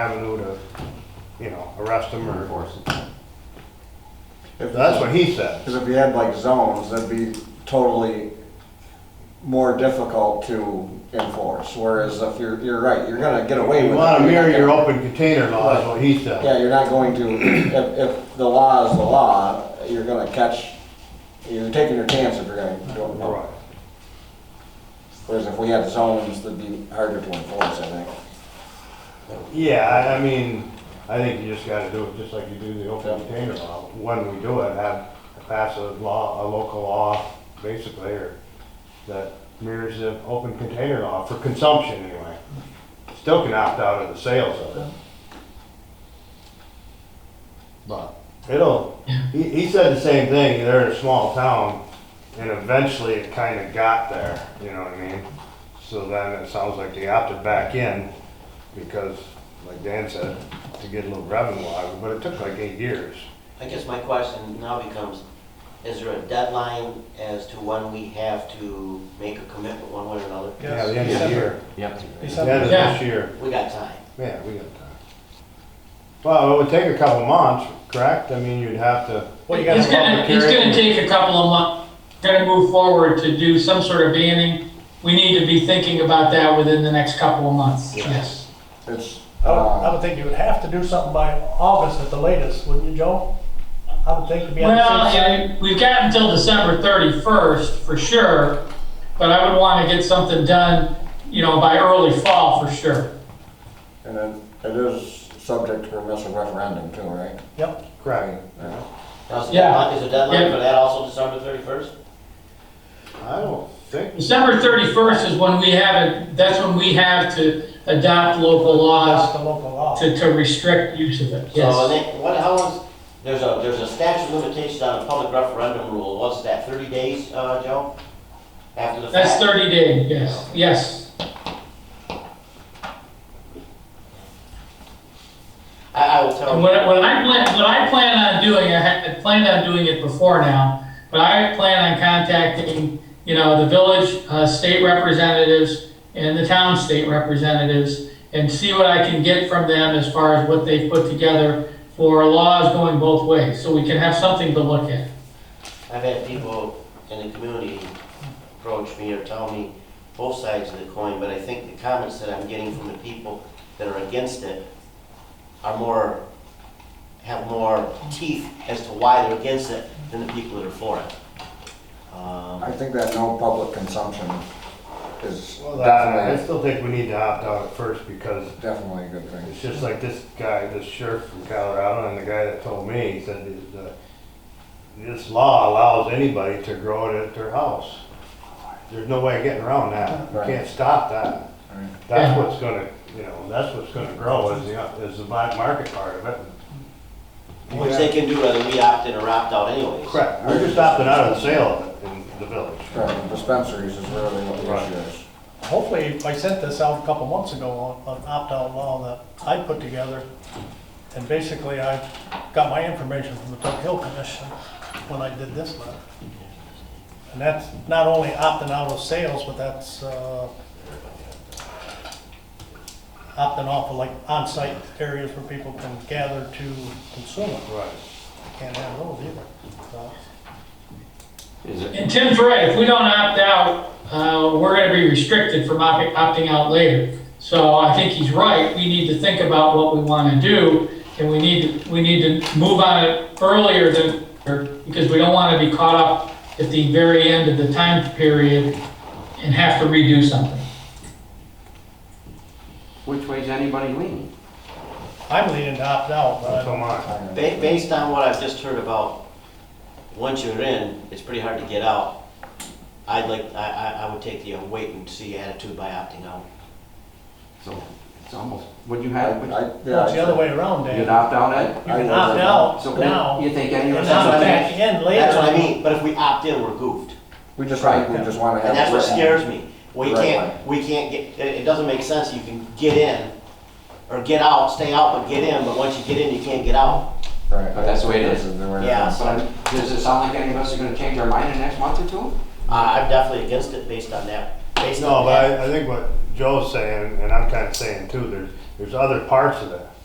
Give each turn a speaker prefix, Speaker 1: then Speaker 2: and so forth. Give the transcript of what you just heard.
Speaker 1: avenue to, you know, arrest them or.
Speaker 2: Enforce
Speaker 3: If
Speaker 1: That's what he said.
Speaker 3: Because if you had like zones, that'd be totally more difficult to enforce, whereas if you're, you're right, you're gonna get away with
Speaker 1: You
Speaker 3: it.
Speaker 1: wanna mirror
Speaker 3: You're
Speaker 1: your
Speaker 3: not
Speaker 1: open container law, is what he
Speaker 3: gonna-
Speaker 1: said.
Speaker 3: Yeah, you're not going to, if, if the law is the law, you're gonna catch, you're taking your chance if you're gonna go.
Speaker 1: Right.
Speaker 3: Whereas if we had zones, that'd be harder to enforce, I think.
Speaker 1: Yeah, I, I mean, I think you just gotta do it just like you do the open container law. When we do it, have, pass a law, a local law, basically, or that mirrors the open container law for consumption anyway. Still can opt out of the sales of it. But it'll, he, he said the same thing, they're in a small town and eventually it kinda got there, you know what I mean? So then it sounds like they opted back in because, like Dan said, to get a little revenue out of it, but it took like eight years.
Speaker 4: I guess my question now becomes, is there a deadline as to when we have to make a commitment one way or another?
Speaker 1: Yeah, the end of the year,
Speaker 2: Yep.
Speaker 1: the end of this year,
Speaker 4: We got time.
Speaker 1: yeah, we got time. Well, it would take a couple months, correct? I mean, you'd have to,
Speaker 5: Well, you
Speaker 1: gotta It's
Speaker 5: gotta,
Speaker 6: It's gonna,
Speaker 1: public
Speaker 6: it's
Speaker 1: hearing.
Speaker 6: gonna take a couple of months, gonna move forward to do some sort of banning. We need to be thinking about that within the next couple of months, yes.
Speaker 3: It's,
Speaker 5: I would, I
Speaker 3: uh,
Speaker 5: would think you would have to do something by August at the latest, wouldn't you, Joe? I would think to be on the
Speaker 6: Well,
Speaker 5: safe side.
Speaker 6: yeah, we've got until December thirty-first for sure, but I would wanna get something done, you know, by early fall for sure.
Speaker 3: and then it is subject to permissive referendum too, right?
Speaker 5: Yep,
Speaker 1: correct?
Speaker 4: Now, is the
Speaker 6: Yeah.
Speaker 4: deadline- is the deadline
Speaker 6: Yeah.
Speaker 4: for that also December thirty-first?
Speaker 1: I don't think,
Speaker 6: December thirty-first is when we have it, that's when we have to adopt local
Speaker 5: that's
Speaker 6: laws
Speaker 5: the local law.
Speaker 6: to, to restrict use of it,
Speaker 4: So, and
Speaker 6: yes.
Speaker 4: then, what, how long's, there's a, there's a statute of limitations on a public referendum rule, what's that, thirty days, uh, Joe? After the fact?
Speaker 6: That's thirty day, yes, yes.
Speaker 4: I, I will tell
Speaker 6: And
Speaker 4: you.
Speaker 6: what, what I plan, what I plan on doing, I had, I planned on doing it before now, but I plan on contacting, you know, the village, uh, state representatives and the town state representatives and see what I can get from them as far as what they've put together for laws going both ways, so we can have something to look at.
Speaker 4: I've had people in the community approach me or tell me both sides of the coin, but I think the comments that I'm getting from the people that are against it are more, have more teeth as to why they're against it than the people that are for it. Um,
Speaker 3: I think that no public consumption is
Speaker 1: well, that, I
Speaker 3: definitely,
Speaker 1: still think we need to opt out at first because
Speaker 3: definitely a good thing.
Speaker 1: It's just like this guy, this sheriff from Colorado, and the guy that told me, he said, is, uh, this law allows anybody to grow it at their house. There's no way of getting around that. You
Speaker 3: Right.
Speaker 1: can't stop that.
Speaker 3: Right.
Speaker 1: That's what's gonna, you know, that's what's gonna grow is the, is the black market part of it.
Speaker 4: Which they can do whether we opt in or opt out anyways.
Speaker 1: Correct. We're just opting out of the sale of it in the village.
Speaker 3: Right, Dispensaries is really what the
Speaker 1: Right.
Speaker 3: issue is.
Speaker 5: Hopefully, I sent this out a couple months ago on an opt-out law that I put together. And basically, I got my information from the Tuck Hill Commission when I did this letter. And that's not only opting out of sales, but that's, uh, opting off of like on-site areas where people can gather to consume it.
Speaker 1: Right.
Speaker 5: Can't have those either. So,
Speaker 2: Is it,
Speaker 6: And Tim's right, if we don't opt out, uh, we're gonna be restricted from opting, opting out later. So I think he's right, we need to think about what we wanna do, and we need, to we need to move on it earlier than, because we don't wanna be caught up at the very end of the time period and have to redo something.
Speaker 2: which way's anybody leaning?
Speaker 5: I'm leaning to opt out, but I
Speaker 1: So am I.
Speaker 4: Ba- Based on what I've just heard about, once you're in, it's pretty hard to get out. I'd like, I, I, I would take the wait and see attitude by opting out.
Speaker 2: So it's almost, would you
Speaker 3: I-
Speaker 2: have, would
Speaker 3: I-
Speaker 2: you
Speaker 3: yeah,
Speaker 5: Well, It's the other way around, Dan.
Speaker 2: you'd opt out at?
Speaker 3: I-
Speaker 5: You can opt out
Speaker 2: So
Speaker 5: now,
Speaker 2: you think any of
Speaker 5: and
Speaker 2: us?
Speaker 4: not-
Speaker 5: then back in later.
Speaker 4: That's what I mean, but if we opt in, we're goofed.
Speaker 3: We just, want- we just want to have.
Speaker 4: And that's what
Speaker 3: it.
Speaker 4: scares me. We
Speaker 3: Right.
Speaker 4: can't, we can't get, it, it doesn't make sense, you can get in, or get out, stay out, but get in, but once you get in, you can't get out.
Speaker 3: Right.
Speaker 2: But that's the way it is.
Speaker 3: This the way it
Speaker 4: Yeah.
Speaker 3: is.
Speaker 2: But I'm- does it sound like any of us are gonna change our mind in the next month or two?
Speaker 4: Uh, I'm definitely against it based on that, based
Speaker 1: No,
Speaker 4: on
Speaker 1: but
Speaker 4: that.
Speaker 1: I, I think what Joe's saying, and I'm kinda saying too, there's, there's other parts of that.